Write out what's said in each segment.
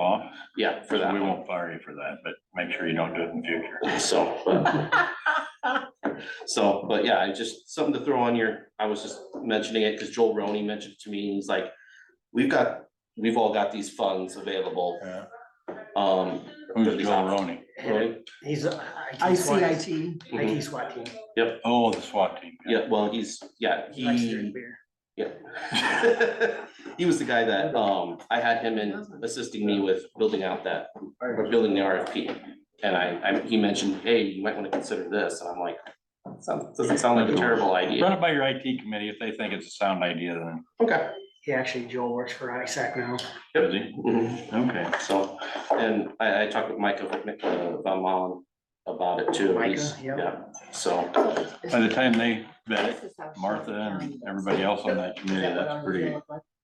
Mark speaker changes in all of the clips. Speaker 1: off.
Speaker 2: Yeah, for
Speaker 1: So
Speaker 2: that
Speaker 1: we
Speaker 2: one,
Speaker 1: won't fire you for that, but make sure you don't do it in future.
Speaker 2: so. but- So, but yeah, I just, something to throw on your, I was just mentioning it because Joel Roney mentioned it to me, he's like, we've got, we've all got these funds available,
Speaker 1: Yeah.
Speaker 2: um. for
Speaker 1: Who's
Speaker 2: these
Speaker 1: Joe
Speaker 2: options."
Speaker 1: Roney?
Speaker 2: Roney?
Speaker 3: He's a
Speaker 4: I
Speaker 3: IT
Speaker 4: C
Speaker 3: SWAT,
Speaker 4: I T.
Speaker 3: IT SWAT team.
Speaker 1: Oh, the SWAT team.
Speaker 2: Yeah, well, he's, yeah,
Speaker 3: He likes to drink
Speaker 2: he,
Speaker 3: beer.
Speaker 2: yeah. He was the guy that, um, I had him in assisting me with building out that, or building the RFP. And I, I, he mentioned, hey, you might want to consider this, and I'm like, sounds, doesn't sound like a terrible idea.
Speaker 1: Run it by your IT committee. If they think it's a sound idea, then,
Speaker 2: Okay.
Speaker 3: He actually, Joel works for ISAC now.
Speaker 1: does he?
Speaker 2: Mm-hmm.
Speaker 1: Okay.
Speaker 2: So, and I, I talked with Micah uh, Van Malen about it too. He's-
Speaker 3: Micah, yep.
Speaker 2: yeah, So,
Speaker 1: By the time they vet it, Martha and everybody else on that committee, that's pretty,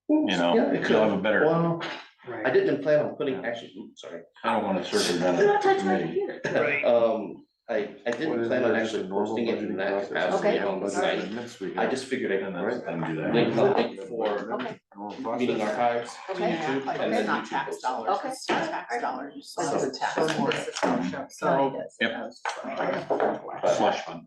Speaker 1: you
Speaker 2: Yeah,
Speaker 1: know,
Speaker 2: it
Speaker 1: you'll have a better,
Speaker 2: well, I
Speaker 3: Right.
Speaker 2: didn't plan on putting, actually, oops, sorry.
Speaker 1: I don't wanna circumvent
Speaker 4: Don't
Speaker 1: it.
Speaker 4: touch my
Speaker 1: committee.
Speaker 4: computer.
Speaker 3: Right.
Speaker 2: Um, I, I
Speaker 5: What
Speaker 2: didn't
Speaker 5: is
Speaker 2: plan on
Speaker 5: there, just a
Speaker 2: actually
Speaker 5: normal
Speaker 2: posting it in
Speaker 5: budgeting
Speaker 2: that
Speaker 5: process?
Speaker 2: capacity
Speaker 4: Okay.
Speaker 2: on the
Speaker 5: Budget
Speaker 2: site.
Speaker 5: amendments we
Speaker 2: I
Speaker 5: got.
Speaker 2: just figured I
Speaker 5: And
Speaker 2: could
Speaker 5: that's
Speaker 2: write
Speaker 5: then do that.
Speaker 2: link something for
Speaker 4: Okay.
Speaker 5: Normal
Speaker 2: meeting
Speaker 5: process.
Speaker 2: archives to
Speaker 4: Okay.
Speaker 2: YouTube. and
Speaker 6: It's
Speaker 2: then
Speaker 6: not
Speaker 2: YouTube
Speaker 6: tax
Speaker 2: posts.
Speaker 6: dollars,
Speaker 4: Okay.
Speaker 6: it's tax dollars.
Speaker 4: Like
Speaker 2: it's
Speaker 6: So-
Speaker 4: a tax.
Speaker 6: So.
Speaker 1: Yep.
Speaker 2: But
Speaker 1: Slush fund.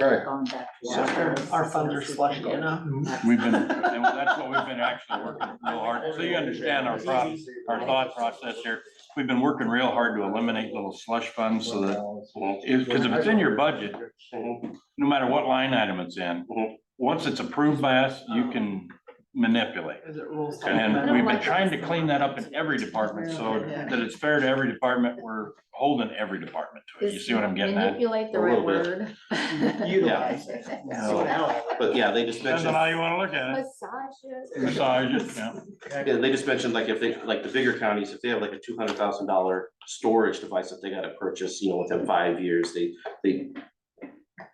Speaker 2: Alright.
Speaker 6: Our funds are slushing, you know?
Speaker 1: We've been, and that's what we've been actually working real hard. So you understand our problem, our thought process here. We've been working real hard to eliminate little slush funds so that, if, cause if it's in your budget, no matter what line item it's in,
Speaker 2: Mhm.
Speaker 1: once it's approved by us, you can manipulate.
Speaker 6: Is it rules?
Speaker 1: And we've been trying to clean that up in every department, so that it's fair to every department, we're holding every department to it, you see what I'm getting at?
Speaker 4: Manipulate the
Speaker 2: A
Speaker 4: right
Speaker 2: little
Speaker 4: word.
Speaker 3: Utilize it.
Speaker 1: No.
Speaker 2: But yeah, they just
Speaker 1: Depends
Speaker 2: mentioned.
Speaker 1: on how you wanna look at it,
Speaker 4: Massage it.
Speaker 1: massage it, yeah.
Speaker 2: Yeah, they just mentioned like if they, like the bigger counties, if they have like a two hundred thousand dollar storage device that they gotta purchase, you know, within five years, they, they.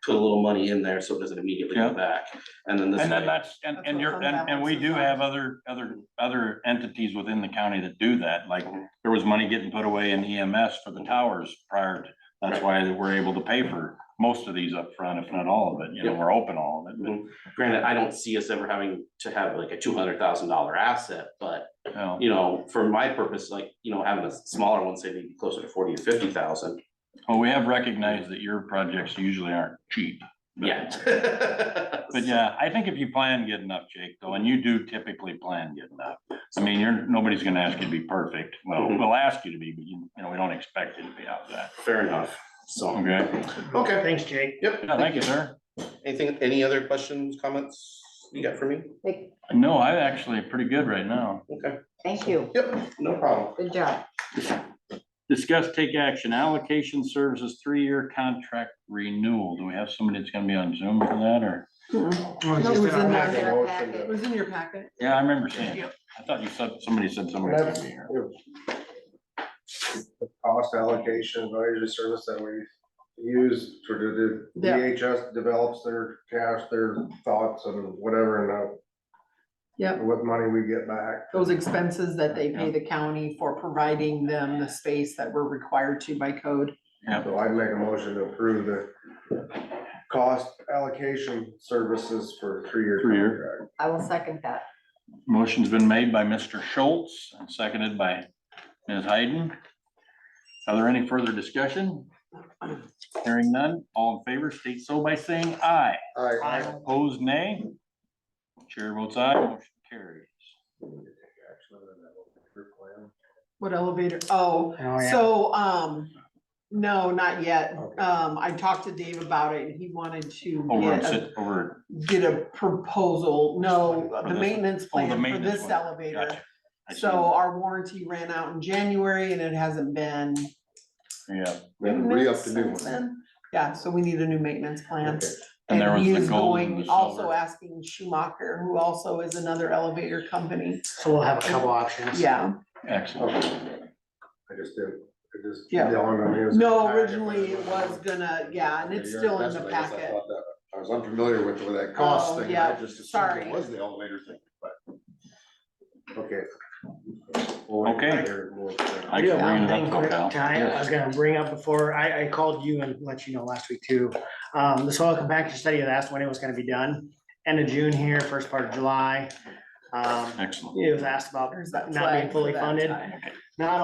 Speaker 2: Put a little money in there so it doesn't immediately
Speaker 1: Yeah.
Speaker 2: go back, and then this
Speaker 1: And then
Speaker 2: way,
Speaker 1: that's, and,
Speaker 6: That's
Speaker 1: and
Speaker 6: what
Speaker 1: you're,
Speaker 6: fund
Speaker 1: and, and we do
Speaker 6: balances are.
Speaker 1: have other, other, other entities within the county that do that, like, there was money getting put away in EMS for the towers prior to, that's why we're able to pay for most of these up front, if not all of it, you know, we're open all of it, but,
Speaker 2: granted, I don't see us ever having to have like a two hundred thousand dollar asset, but.
Speaker 1: you know.
Speaker 2: You know, for my purpose, like, you know, having a smaller one, say maybe closer to forty or fifty thousand,
Speaker 1: Well, we have recognized that your projects usually aren't cheap. but-
Speaker 2: yeah.
Speaker 1: But yeah, I think if you plan good enough, Jake, though, and you do typically plan good enough, I mean, you're, nobody's gonna ask you to be perfect. Well,
Speaker 2: Mhm.
Speaker 1: we'll ask you to be, but you, you know, we don't expect you to be out of that.
Speaker 2: Fair enough, so,
Speaker 1: Okay,
Speaker 2: okay,
Speaker 3: Thanks, Jake.
Speaker 2: yep,
Speaker 1: Yeah, thank you, sir.
Speaker 2: anything, any other questions, comments you got for me?
Speaker 4: Like,
Speaker 1: No, I'm actually pretty good right now.
Speaker 2: Okay,
Speaker 4: Thank you.
Speaker 2: yep, no problem.
Speaker 4: Good job.
Speaker 1: Discuss, take action, allocation services, three-year contract renewal. Do we have somebody that's gonna be on Zoom for that or?
Speaker 3: Well, it's
Speaker 6: No,
Speaker 3: just
Speaker 6: it
Speaker 3: in
Speaker 6: was
Speaker 3: our
Speaker 6: in
Speaker 3: packet.
Speaker 4: Get
Speaker 6: there.
Speaker 4: our packet.
Speaker 6: It was in your packet.
Speaker 1: Yeah, I remember seeing it. I thought you said, somebody said somebody was gonna be here.
Speaker 5: The Cost allocation advisory service that we use for the- the
Speaker 6: Yeah.
Speaker 5: DHS develops their cash, their thoughts and whatever, and uh,
Speaker 6: Yep,
Speaker 5: what money we get back.
Speaker 6: those expenses that they pay the county for providing them the space that we're required to by code.
Speaker 5: So I'd make a motion to approve the cost allocation services for three-year
Speaker 1: Three-year.
Speaker 5: contract.
Speaker 4: I will second that.
Speaker 1: Motion's been made by Mr. Schultz and seconded by Ms. Hayden. Are there any further discussion? Hearing none, all in favor state so by saying aye.
Speaker 5: I,
Speaker 1: Opposed, nay. Chair votes aye, motion carries.
Speaker 6: What elevator? Oh,
Speaker 3: Oh, yeah.
Speaker 6: so, um, no, not yet.
Speaker 5: Okay.
Speaker 6: Um, I talked to Dave about it and he wanted to
Speaker 1: Over,
Speaker 6: get
Speaker 1: and
Speaker 6: a,
Speaker 1: sit over.
Speaker 6: get a proposal. No,
Speaker 1: For
Speaker 6: the
Speaker 1: this-
Speaker 6: maintenance
Speaker 1: oh, the
Speaker 6: plan for
Speaker 1: maintenance
Speaker 6: this
Speaker 1: one.
Speaker 6: elevator.
Speaker 1: Gotcha. I see.
Speaker 6: So our warranty ran out in January and it hasn't been.
Speaker 1: Yeah,
Speaker 5: We have to re-up the new one.
Speaker 6: since then. Yeah, so we need a new maintenance plan.
Speaker 5: Okay.
Speaker 1: And there was
Speaker 6: he
Speaker 1: the
Speaker 6: is
Speaker 1: gold and
Speaker 6: going,
Speaker 1: the
Speaker 6: also
Speaker 1: silver.
Speaker 6: asking Schumacher, who also is another elevator company.
Speaker 3: So we'll have a couple options.
Speaker 6: Yeah,
Speaker 1: excellent.
Speaker 5: I just did, I just.
Speaker 6: Yeah.
Speaker 5: dawned on me it was in the
Speaker 6: no,
Speaker 5: packet,
Speaker 6: originally it
Speaker 5: but I
Speaker 6: was
Speaker 5: wasn't-
Speaker 6: gonna, yeah, and it's
Speaker 5: Yeah,
Speaker 6: still in
Speaker 5: that's
Speaker 6: the
Speaker 5: what I guess I
Speaker 6: packet.
Speaker 5: thought that- I was unfamiliar with with that cost
Speaker 6: Oh,
Speaker 5: thing, and
Speaker 6: yeah,
Speaker 5: I just assumed
Speaker 6: sorry.
Speaker 5: it was the elevator thing, but. Okay.
Speaker 1: Okay. I
Speaker 5: Okay.
Speaker 1: can bring
Speaker 3: One
Speaker 1: it
Speaker 3: thing
Speaker 1: up,
Speaker 3: quick,
Speaker 1: Cal.
Speaker 3: Ty, I was gonna bring up before, I, I called you and let you know last week too. Um, the soil compaction study had asked when it was gonna be done, end of June here, first part of July. Um,
Speaker 1: Excellent.
Speaker 3: it was asked about
Speaker 6: There's that
Speaker 3: not
Speaker 6: flag
Speaker 3: being
Speaker 6: for
Speaker 3: fully
Speaker 6: that
Speaker 3: funded,
Speaker 6: tie.
Speaker 3: not